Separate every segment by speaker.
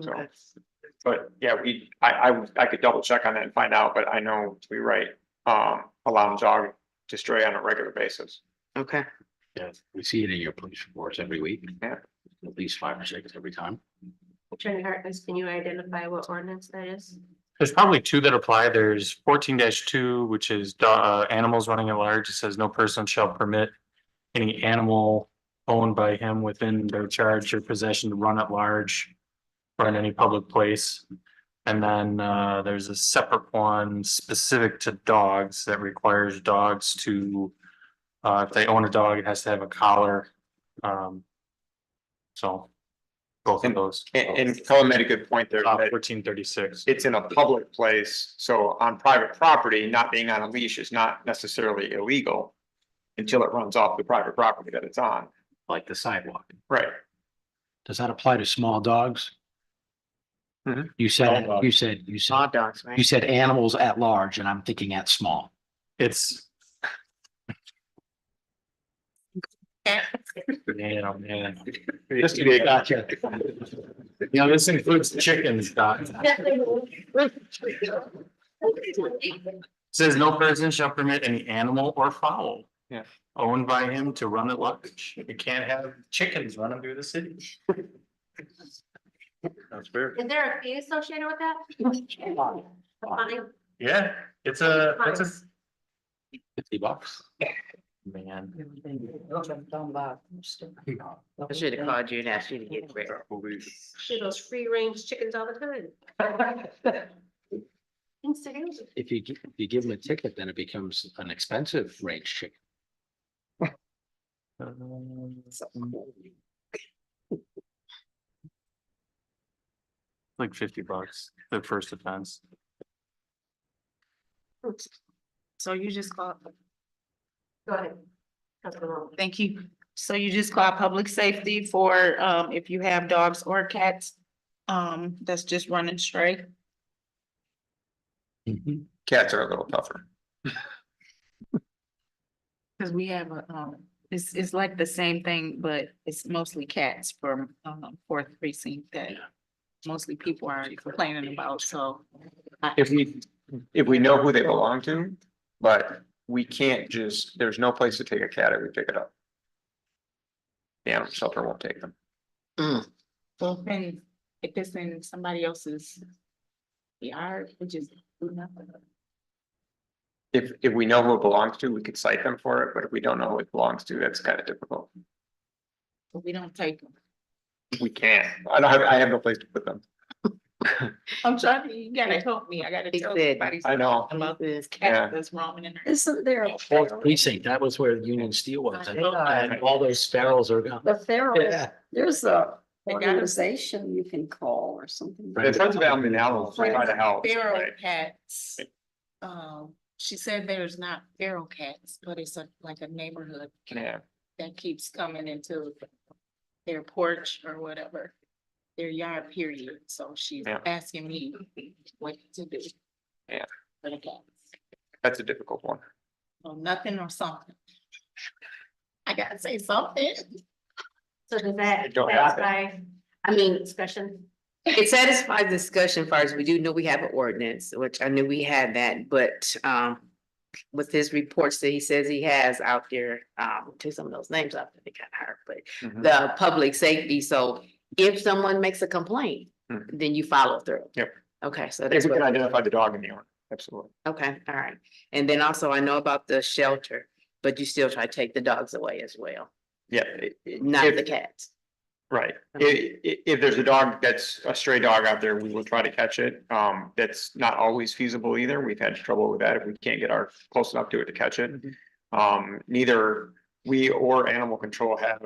Speaker 1: So,
Speaker 2: Okay.
Speaker 1: but yeah, we, I, I, I could double check on that and find out, but I know we write, um, allowing dog to stray on a regular basis.
Speaker 2: Okay,
Speaker 3: Yeah, we see it in your police reports every week.
Speaker 1: Yeah.
Speaker 3: At least five or six every time.
Speaker 4: Attorney Harkness, can you identify what ordinance that is?
Speaker 5: There's probably two that apply. There's fourteen two, which is do- uh, animals running at large. It says no person shall permit any animal owned by him within their charge or possession to run at large or in any public place. And then uh, there's a separate one specific to dogs that requires dogs to uh, if they own a dog, it has to have a collar. Um, so both of those. Uh,
Speaker 1: And, and Colin made a good point there, that
Speaker 5: Fourteen thirty-six.
Speaker 1: it's in a public place, so on private property, not being on a leash is not necessarily illegal. Until it runs off the private property that it's on,
Speaker 3: Like the sidewalk.
Speaker 1: right?
Speaker 3: Does that apply to small dogs?
Speaker 2: Mm-hmm.
Speaker 1: Mhm.
Speaker 3: You said, you said, you
Speaker 2: law
Speaker 3: said,
Speaker 2: dogs, right?
Speaker 3: you said animals at large, and I'm thinking at small.
Speaker 5: It's Yeah, man. Just to be a gotcha. You know, this includes chickens, Doc. Says no person shall permit any animal or fowl.
Speaker 1: Yeah.
Speaker 5: Owned by him to run at large. You can't have chickens running through the city. That's weird.
Speaker 4: Is there a fee associated with that? A fine?
Speaker 5: Yeah, it's a, it's a.
Speaker 3: Fifty bucks.
Speaker 5: Man.
Speaker 2: I should have called you and asked you to get rid of
Speaker 4: Shoot, those free range chickens all the time. Instigators.
Speaker 3: If you, gi- if you give them a ticket, then it becomes an expensive range chicken.
Speaker 5: Um,
Speaker 2: it.
Speaker 5: Like fifty bucks, the first offense.
Speaker 6: So you just call,
Speaker 4: Go ahead. Councilwoman.
Speaker 6: thank you. So you just call public safety for, um, if you have dogs or cats, um, that's just running straight.
Speaker 2: Mm-hmm.
Speaker 1: Cats are a little tougher.
Speaker 6: Cause we have, a, um, it's, it's like the same thing, but it's mostly cats from, um, fourth precinct that mostly people are complaining about, so.
Speaker 1: If we, if we know who they belong to, but we can't just, there's no place to take a cat if we pick it up. The animal shelter won't take them.
Speaker 6: And if it's in somebody else's yard, we just do nothing.
Speaker 1: If, if we know who it belongs to, we could cite them for it, but if we don't know who it belongs to, that's kind of difficult.
Speaker 6: We don't take them.
Speaker 1: We can't, I don't have, I have no place to put them.
Speaker 6: I'm trying, to- you gotta help me. I gotta
Speaker 2: He
Speaker 6: tell
Speaker 2: said-
Speaker 6: somebody.
Speaker 1: I know.
Speaker 6: About
Speaker 2: This
Speaker 1: Yeah.
Speaker 6: cat that's roaming in there.
Speaker 7: Isn't there a
Speaker 3: Fourth
Speaker 7: feral?
Speaker 3: precinct, that was where Union Steel was.
Speaker 2: I
Speaker 3: And
Speaker 2: know.
Speaker 3: and all those sparrows are gone.
Speaker 7: The feral,
Speaker 3: Yeah.
Speaker 7: there's a
Speaker 6: They got 'em.
Speaker 7: organization you can call or something.
Speaker 3: Right.
Speaker 1: The Friends of Alvin Animals try to help.
Speaker 6: Feral
Speaker 1: right?
Speaker 6: cats. Um, she said there's not feral cats, but it's a, like a neighborhood cat
Speaker 1: Yeah,
Speaker 6: that keeps coming into their porch or whatever. Their yard period, so she's
Speaker 1: Yeah.
Speaker 6: asking me what to do.
Speaker 1: Yeah.
Speaker 6: For the cats,
Speaker 1: that's a difficult one.
Speaker 6: or nothing or something. I gotta say something.
Speaker 4: So does that
Speaker 1: It don't happen.
Speaker 4: satisfy, I mean, discussion?
Speaker 2: It satisfies discussion as far as we do know we have an ordinance, which I knew we had that, but um. With his reports that he says he has out there, um, to some of those names up, they got hard, but
Speaker 1: Mhm.
Speaker 2: the public safety, so. If someone makes a complaint,
Speaker 1: Mhm.
Speaker 2: then you follow through.
Speaker 1: Yep.
Speaker 2: Okay, so
Speaker 1: If
Speaker 2: that's
Speaker 1: we can
Speaker 2: what,
Speaker 1: identify the dog in the owner, absolutely.
Speaker 2: okay, all right. And then also I know about the shelter, but you still try to take the dogs away as well,
Speaker 1: Yeah. i- i-
Speaker 2: not
Speaker 1: if-
Speaker 2: the cats.
Speaker 1: Right, i-
Speaker 2: Okay.
Speaker 1: i- if there's a dog that's a stray dog out there, we will try to catch it, um, that's not always feasible either, we've had trouble with that if we can't get our, close enough to it to catch it. Um, neither we or animal control have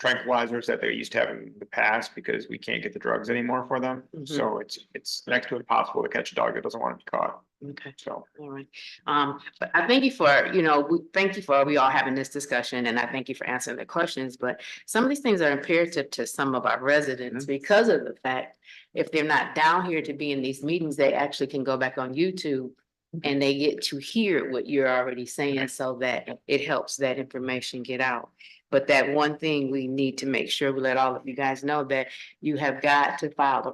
Speaker 1: tranquilizers that they used to have in the past, because we can't get the drugs anymore for them.
Speaker 2: Mhm.
Speaker 1: So it's, it's next to impossible to catch a dog that doesn't want to be caught,
Speaker 2: Okay.
Speaker 1: so,
Speaker 2: All right, um, but I thank you for, you know, we, thank you for, we all having this discussion and I thank you for answering the questions, but some of these things are imperative to some of our residents because of the fact if they're not down here to be in these meetings, they actually can go back on YouTube and they get to hear what you're already saying so that it helps that information get out. But that one thing we need to make sure we let all of you guys know that you have got to file a